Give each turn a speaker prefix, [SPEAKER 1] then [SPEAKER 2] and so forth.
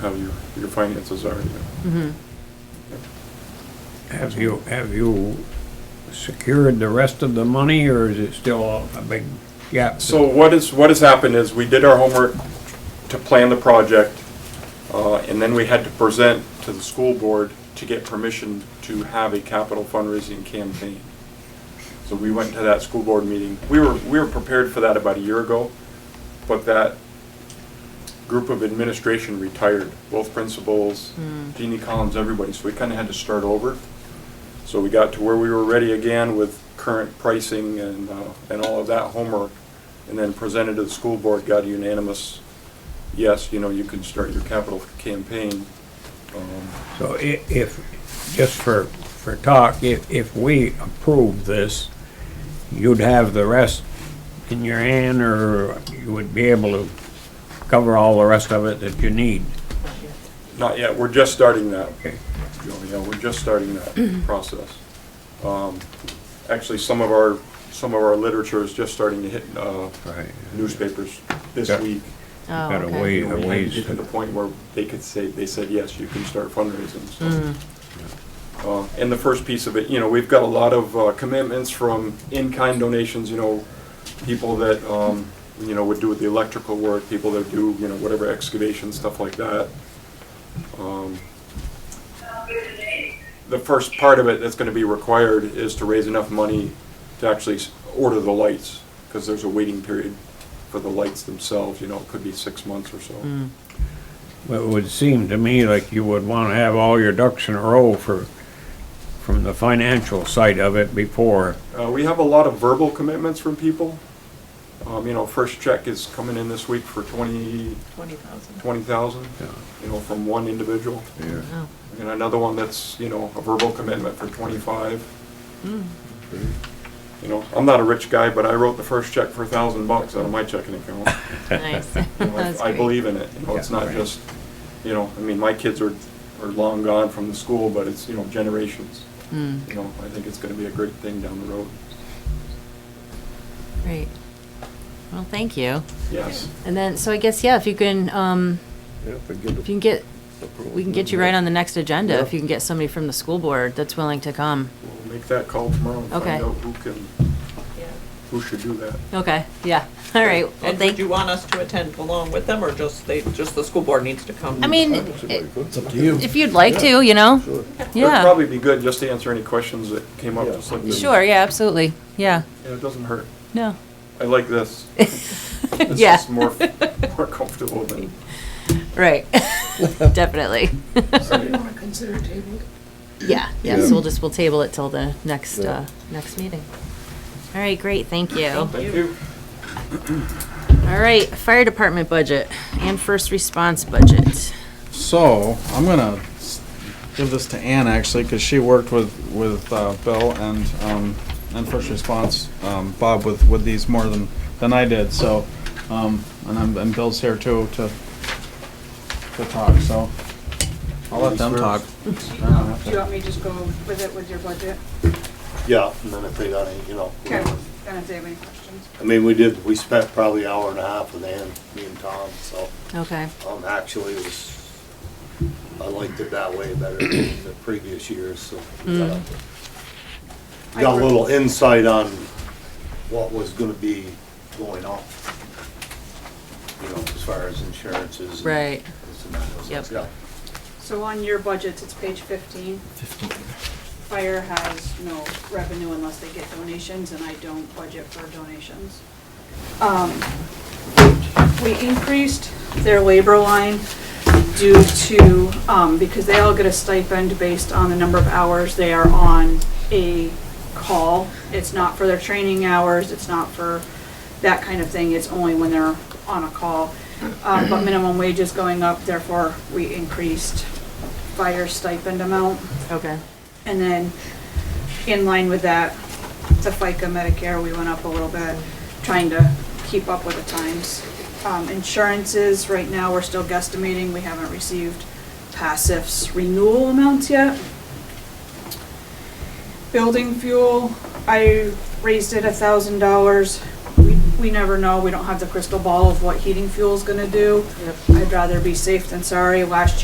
[SPEAKER 1] how your, your finances are, you know.
[SPEAKER 2] Mhm.
[SPEAKER 3] Have you, have you secured the rest of the money, or is it still a big gap?
[SPEAKER 1] So what is, what has happened is we did our homework to plan the project, uh, and then we had to present to the school board to get permission to have a capital fundraising campaign. So we went to that school board meeting. We were, we were prepared for that about a year ago, but that group of administration retired, both principals, Jeannie Collins, everybody, so we kinda had to start over. So we got to where we were ready again with current pricing and, uh, and all of that homework, and then presented to the school board, got a unanimous, yes, you know, you can start your capital campaign. Um,
[SPEAKER 3] So i- if, just for, for talk, if, if we approve this, you'd have the rest in your hand, or you would be able to cover all the rest of it that you need?
[SPEAKER 1] Not yet, we're just starting that.
[SPEAKER 3] Okay.
[SPEAKER 1] Joe, Yeah, we're just starting that process. Um, Actually, some of our, some of our literature is just starting to hit uh,
[SPEAKER 3] Right.
[SPEAKER 1] newspapers this
[SPEAKER 3] Yeah.
[SPEAKER 1] week.
[SPEAKER 2] Oh,
[SPEAKER 3] Gotta
[SPEAKER 2] okay.
[SPEAKER 3] wait.
[SPEAKER 1] You know, we
[SPEAKER 3] Yeah,
[SPEAKER 1] had to
[SPEAKER 3] ways
[SPEAKER 1] get to
[SPEAKER 3] to-
[SPEAKER 1] the point where they could say, they said, yes, you can start fundraising, so.
[SPEAKER 2] Mm-hmm. Mm.
[SPEAKER 1] Uh, And the first piece of it, you know, we've got a lot of uh, commitments from in-kind donations, you know, people that, um, you know, would do the electrical work, people that do, you know, whatever excavation, stuff like that. Um, The first part of it that's gonna be required is to raise enough money to actually s- order the lights, because there's a waiting period for the lights themselves, you know, it could be six months or so.
[SPEAKER 3] Well, It would seem to me like you would want to have all your ducks in a row for, from the financial side of it before.
[SPEAKER 1] Uh, we have a lot of verbal commitments from people. Um, you know, first check is coming in this week for twenty,
[SPEAKER 4] Twenty thousand.
[SPEAKER 1] twenty thousand,
[SPEAKER 3] Yeah.
[SPEAKER 1] you know, from one individual.
[SPEAKER 2] Oh.
[SPEAKER 1] And another one that's, you know, a verbal commitment for twenty-five.
[SPEAKER 2] Mm.
[SPEAKER 1] You know, I'm not a rich guy, but I wrote the first check for a thousand bucks out of my checking account.
[SPEAKER 2] Nice.
[SPEAKER 1] You know,
[SPEAKER 2] That's
[SPEAKER 1] I I
[SPEAKER 2] great.
[SPEAKER 1] believe in it, you know, it's
[SPEAKER 3] Yeah,
[SPEAKER 1] not
[SPEAKER 3] right.
[SPEAKER 1] just, you know, I mean, my kids are, are long gone from the school, but it's, you know, generations.
[SPEAKER 2] Mm,
[SPEAKER 1] You know, I think it's gonna be a great thing down the road.
[SPEAKER 2] Great. Well, thank you.
[SPEAKER 1] Yes.
[SPEAKER 2] And then, so I guess, yeah, if you can, um,
[SPEAKER 5] Yeah, if I get
[SPEAKER 2] if you can get,
[SPEAKER 5] approval.
[SPEAKER 2] we can get you right on the next agenda, if
[SPEAKER 5] Yeah.
[SPEAKER 2] you can get somebody from the school board that's willing to come.
[SPEAKER 1] We'll make that call tomorrow and
[SPEAKER 2] Okay.
[SPEAKER 1] find out who can, who should do that.
[SPEAKER 2] Okay, yeah, all right. Well,
[SPEAKER 4] And would
[SPEAKER 2] thank,
[SPEAKER 4] you want us to attend along with them, or just they, just the school board needs to come?
[SPEAKER 2] I mean, i-
[SPEAKER 5] It's up to you.
[SPEAKER 2] if you'd like to, you know?
[SPEAKER 5] Sure.
[SPEAKER 1] It'd
[SPEAKER 2] Yeah,
[SPEAKER 1] probably be good just to answer any questions that came up, just like this.
[SPEAKER 2] sure, yeah, absolutely, yeah,
[SPEAKER 1] Yeah, It doesn't hurt.
[SPEAKER 2] no,
[SPEAKER 1] I like this. It's
[SPEAKER 2] Yeah.
[SPEAKER 1] just more, more comfortable than,
[SPEAKER 2] right, definitely.
[SPEAKER 6] So you want to consider table?
[SPEAKER 2] Yeah, yeah, so
[SPEAKER 5] Yeah.
[SPEAKER 2] we'll just, we'll table it till the next,
[SPEAKER 5] Yeah.
[SPEAKER 2] uh, next meeting. All right, great, thank you.
[SPEAKER 1] thank you.
[SPEAKER 2] All right, fire department budget and first response budget.
[SPEAKER 7] So I'm gonna s- give this to Ann actually, because she worked with with uh, Bill and um, and first response um, Bob with with these more than than I did. So um, and I'm and Bill's here too to to talk. So I'll let them talk.
[SPEAKER 6] Do you want me to just go with it with your budget?
[SPEAKER 8] Yeah, and then if they got any, you know.
[SPEAKER 6] Okay, then if they have any questions.
[SPEAKER 8] I mean, we did, we spent probably an hour and a half with Ann, me and Tom, so,
[SPEAKER 2] Okay,
[SPEAKER 8] um, actually it was, I liked it that way better than the previous years, so. we got a- Got a little insight on what was gonna be going on. You know, as far as insurances. and
[SPEAKER 2] Right.
[SPEAKER 8] this and that, it was
[SPEAKER 2] Yep.
[SPEAKER 8] like, yeah.
[SPEAKER 6] So on your budgets, it's page fifteen. Fire has no revenue unless they get donations, and I don't budget for donations. Um, We increased their labor line due to, um, because they all get a stipend based on the number of hours they are on a call. It's not for their training hours, it's not for that kind of thing, it's only when they're on a call. Um, but minimum wage is going up, therefore we increased fire stipend amount.
[SPEAKER 2] okay,
[SPEAKER 6] And then, in line with that, the FICA Medicare, we went up a little bit, trying to keep up with the times. Um, insurances, right now, we're still guesstimating, we haven't received passives renewal amounts yet. Building fuel, I raised it a thousand dollars. We we never know, we don't have the crystal ball of what heating fuel's gonna do. I'd rather be safe than sorry. Last year.